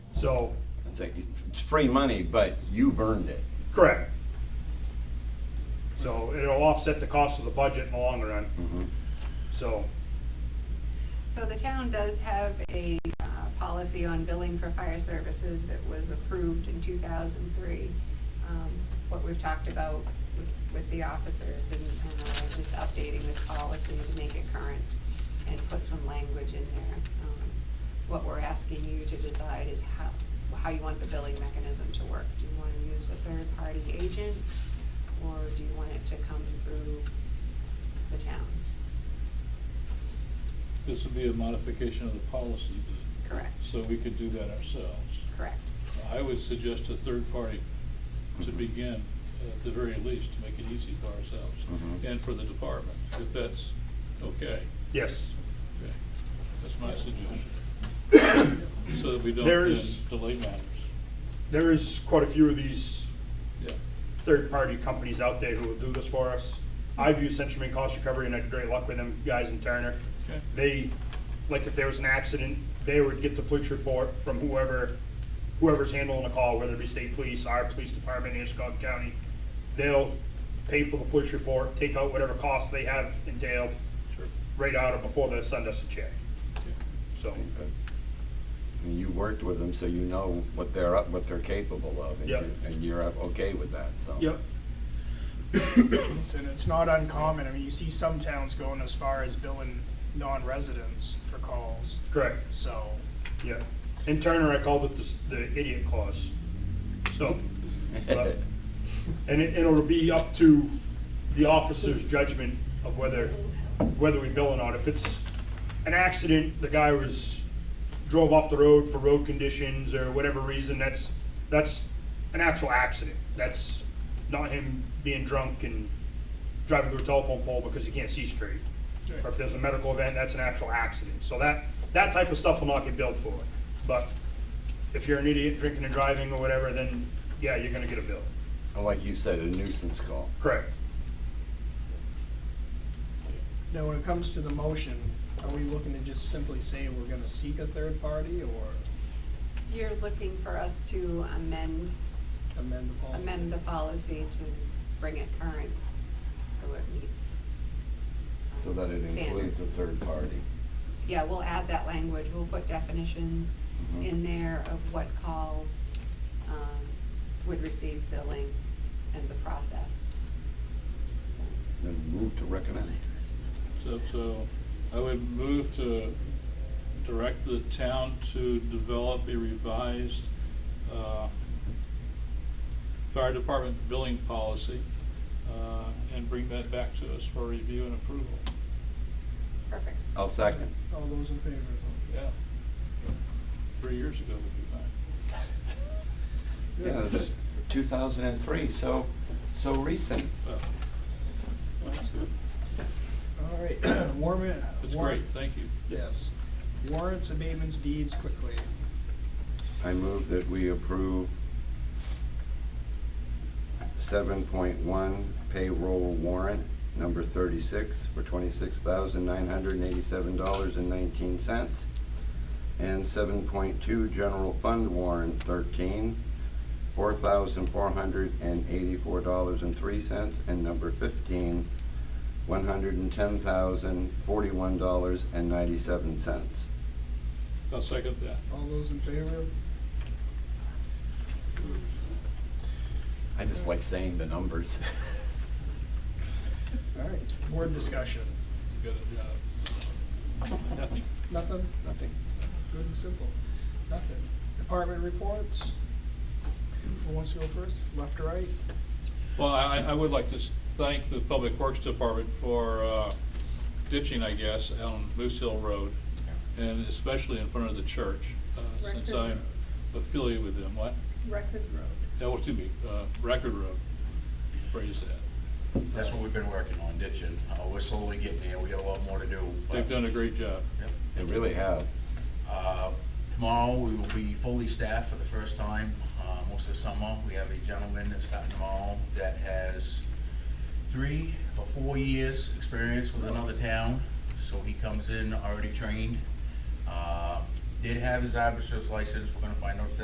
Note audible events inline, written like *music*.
So, It's like, it's free money, but you burned it. correct. So it'll offset the cost of the budget in the long run. So, So the town does have a uh, policy on billing for fire services that was approved in 2003. Um, What we've talked about with- with the officers and and, uh, just updating this policy to make it current and put some language in there. Um, What we're asking you to decide is how, how you want the billing mechanism to work. Do you want to use a third-party agent or do you want it to come through the town? This would be a modification of the policy, but- Correct, so we could do that ourselves. correct. I would suggest a third party to begin, at the very least, to make it easy for ourselves Mhm. and for the department, if that's okay. yes, Okay. That's my suggestion. *coughs* So that we don't There then is- delay matters. there is quite a few of these Yeah. third-party companies out there who will do this for us. I've used Century Cost Recovery and had great luck with them guys in Turner. Okay. They, like if there was an accident, they would get the police report from whoever, whoever's handling the call, whether it be state police, our police department, Anscombe County. They'll pay for the police report, take out whatever costs they have entailed Sure. right out of before they send us a check. Okay. So, But I mean, You worked with them, so you know what they're up, what they're capable of. and Yep. you- And you're up- okay with that, so. yep, And it's not uncommon, I mean, you see some towns going as far as billing non-residents for calls, correct. so. Yeah, in Turner, I called it the, s- the idiot clause. So, but- and it, it'll be up to the officer's judgment of whether, whether we bill or not. If it's an accident, the guy was, drove off the road for road conditions or whatever reason, that's, that's an actual accident. That's not him being drunk and driving through a telephone pole because he can't see straight. Or if there's a medical event, that's an actual accident. So that, that type of stuff will not get billed for. But if you're an idiot drinking and driving or whatever, then yeah, you're gonna get a bill. Like you said, a nuisance call. Correct. Now, when it comes to the motion, are we looking to just simply say we're gonna seek a third party or You're looking for us to amend, amend the policy? amend the policy to bring it current, so it meets. um, So that it includes a standards. third party. Yeah, we'll add that language, we'll put definitions Mhm. in there of what calls, um, would receive billing and the process. Then move to recommend. So, so I would move to direct the town to develop a revised, uh, fire department billing policy, uh, and bring that back to us for review and approval. Perfect. *laughs* I'll second. All those in favor? Yeah. Three years ago would be fine. Yeah, this is 2003, so, so recent. Well, That's good. All right, *clears throat* warrant. That's great, thank you. Yes. Warrants, abatements, deeds, quickly. I move that we approve seven point one payroll warrant number thirty-six for twenty-six thousand nine hundred and eighty-seven dollars and nineteen cents. And seven point two general fund warrant thirteen, four thousand four hundred and eighty-four dollars and three cents. And number fifteen, one hundred and ten thousand forty-one dollars and ninety-seven cents. I'll second that. All those in favor? I just like saying the numbers. All right, board discussion. You got a job. Nothing. Nothing? Nothing. Good and simple. Nothing. Department reports? Who wants to go first? Left or right? Well, I, I would like to s- thank the Public Works Department for uh, ditching, I guess, on Moose Hill Road, and especially in front of the church, uh, since Record I'm affiliated with them, what? Record road. That was too big, uh, Record Road, phrase that. That's what we've been working on, ditching. Uh, we're slowly getting there. We got a lot more to do. but- They've done a great job. Yep. They really have. Uh, Tomorrow, we will be fully staffed for the first time, uh, most of summer. We have a gentleman that's starting tomorrow that has three or four years' experience with another town. So he comes in already trained. Uh, Did have his driver's license. We're gonna find out if that